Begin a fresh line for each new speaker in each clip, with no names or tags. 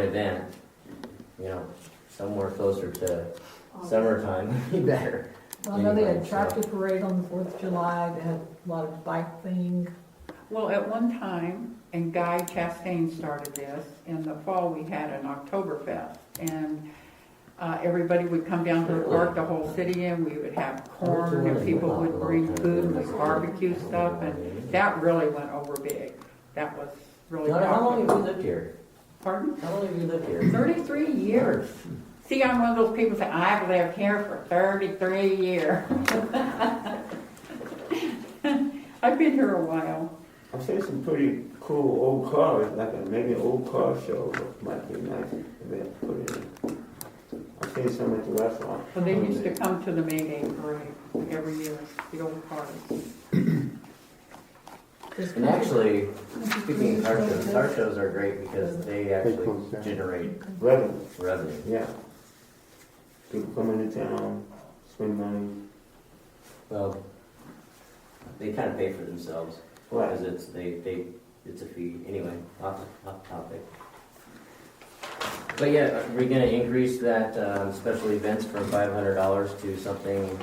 event, you know, somewhere closer to summertime would be better.
Well, I know they had
Anyway, so-
tractor parade on the Fourth of July, they had a lot of bike thing.
Well, at one time, and Guy Chastain started this, in the fall, we had an Oktoberfest. And uh, everybody would come down to the park, the whole city, and we would have corn, and people
uh,
would bring food, and we barbecue stuff. And that really went over big. That was really
Donna, how long
popular.
have you lived here?
Pardon?
How long have you lived here?
Thirty-three years. See, I'm one of those people that I've lived here for thirty-three years. I've been here a while.
I've seen some pretty cool old cars, like a, maybe an old car show might be nice if they put it in. I've seen some at the restaurant.
Well,
Oh,
they used to come to the May Day parade every year, the old party.
Um,
And actually, speaking of car shows, car shows are great because they actually
close down.
generate
Revenue,
revenue.
yeah. People come into town, spend money,
Well, they kind of pay for themselves because
right,
it's, they, they, it's a fee. Anyway, off, off topic. But yeah, are we gonna increase that, um, special events from five hundred dollars to something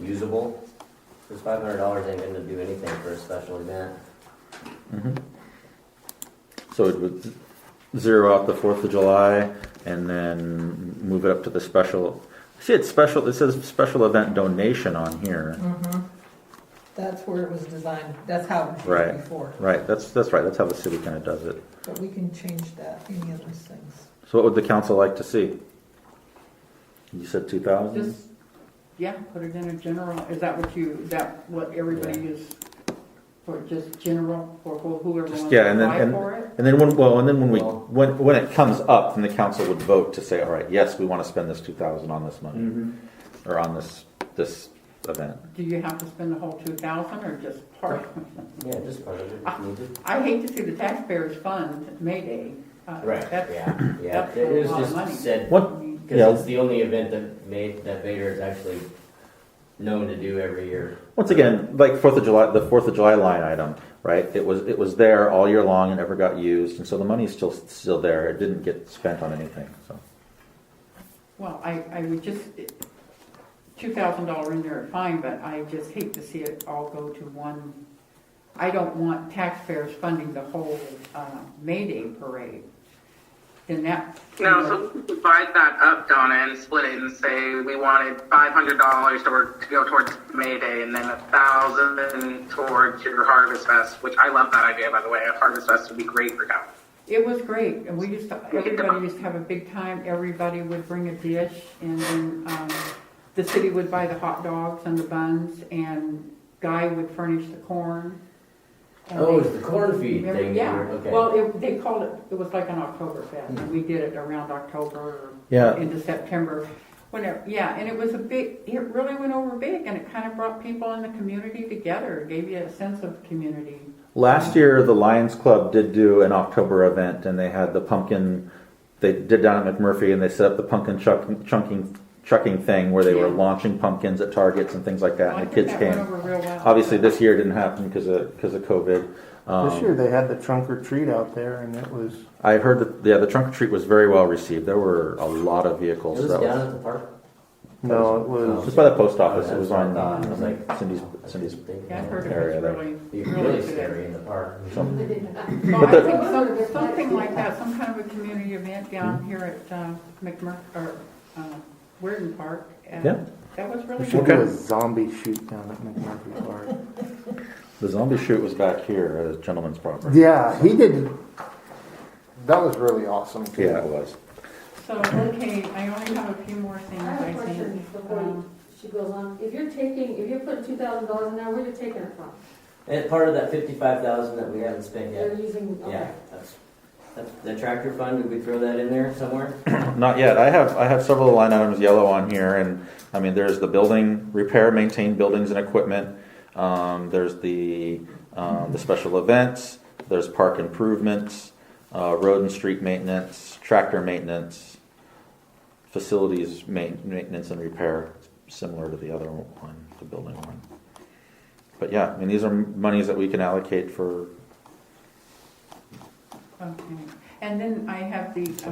usable? Cause five hundred dollars ain't gonna do anything for a special event.
Mm-hmm. So it would zero out the Fourth of July and then move it up to the special. See, it's special. It says special event donation on here.
Mhm. That's where it was designed, that's how it
Right.
was before,
Right. That's that's right. That's how the city kind of does it.
but we can change that, any of those things.
So, what would the council like to see? You said two thousand.
Just, yeah, put it in a general, is that what you, is that what everybody
Yeah.
is? For just general, for who- whoever
Just-
wants
yeah,
to
and then-
apply
and-
for it?
And then when well, and then when we
Well-
when when it comes up, then the council would vote to say, all right, yes, we want to spend this two thousand on this money or on this this event.
Do you have to spend the whole two thousand or just part?
Yeah, just part of it, if needed.
I hate to see the taxpayers fund May Day. Uh, that's-
Yeah, yeah,
that's a
it was
lot of money.
just said,
What
I mean,
Yeah.
cause it's the only event that made, that Vader is actually known to do every year.
Once again, like Fourth of July, the Fourth of July line item, right? It was it was there all year long and never got used, and so the money's still still there. It didn't get spent on anything. So
Well, I, I would just, two thousand dollar in there, fine, but I just hate to see it all go to one. I don't want taxpayers funding the whole, uh, May Day parade. Then that.
No, so we could divide that up, Donna, and split it and say we wanted five hundred dollars to, work- to go towards May Day and then a thousand towards your Harvest Fest, which I love that idea, by the way. A Harvest Fest would be great for town.
It was great, and we used to, everybody used to have a big time, everybody would bring a dish, and then, um, the city would buy the hot dogs and the buns, and Guy would furnish the corn. And
Oh,
they-
it's the corn feed
Remember-
thing. you
Yeah,
were- Okay.
well, it, they called it, it was like an Oktoberfest, and we did it around October
Yeah.
or into September, whenever, yeah, and it was a big, it really went over big, and it kind of brought people in the community together, gave you a sense of community.
last year, the Lions Club did do an October event, and they had the pumpkin. They did down at McMurphy, and they set up the pumpkin chuck, chunking chucking thing where they were
Yeah.
launching pumpkins at targets and things like that,
I
and the
think
kids
that went
came.
over real well.
Obviously, this year it didn't happen because of because of COVID. Um,
This year they had the trunk or treat out there, and it was
I heard that yeah, the trunk or treat was very well received. There were a lot of
It
vehicles.
was
that
down at the park.
no, it
It
was
was by the post office.
Oh,
It was
that's
on
what I thought. I was like,
Cindy's.
I
Cindy's.
didn't think
Yeah, I
that
heard
would
it was
Area
really,
Be
really
really
good.
scary in the park.
So,
So
But
I
the-
think some- something like that, some kind of a community event down
Hmm.
here at uh, McMur, or uh, Weirton Park. and
Yeah.
That was really
we
good.
should do a zombie shoot down at McMurphy Park.
the zombie shoot was back here at a gentleman's property.
Yeah, he did. That was really awesome. Too.
Yeah, it was.
So, okay, I only have a few more things
I have
I
a question
think.
before you-
Um,
she goes on. If you're taking, if you're putting two thousand dollars in there, where are you taking it from?
And part of that fifty-five thousand that we haven't spent
They're
yet,
using,
yeah,
okay.
that's, that's the tractor fund, did we throw that in there somewhere?
Not yet. I have I have several line items yellow on here, and I mean there's the building repair, maintain buildings and equipment. Um, there's the um, the special events. There's park improvements, uh, road and street maintenance, tractor maintenance, facilities ma- maintenance and repair, similar to the other one, the building one. But yeah, I mean these are monies that we can allocate for
okay. And Um, then I have the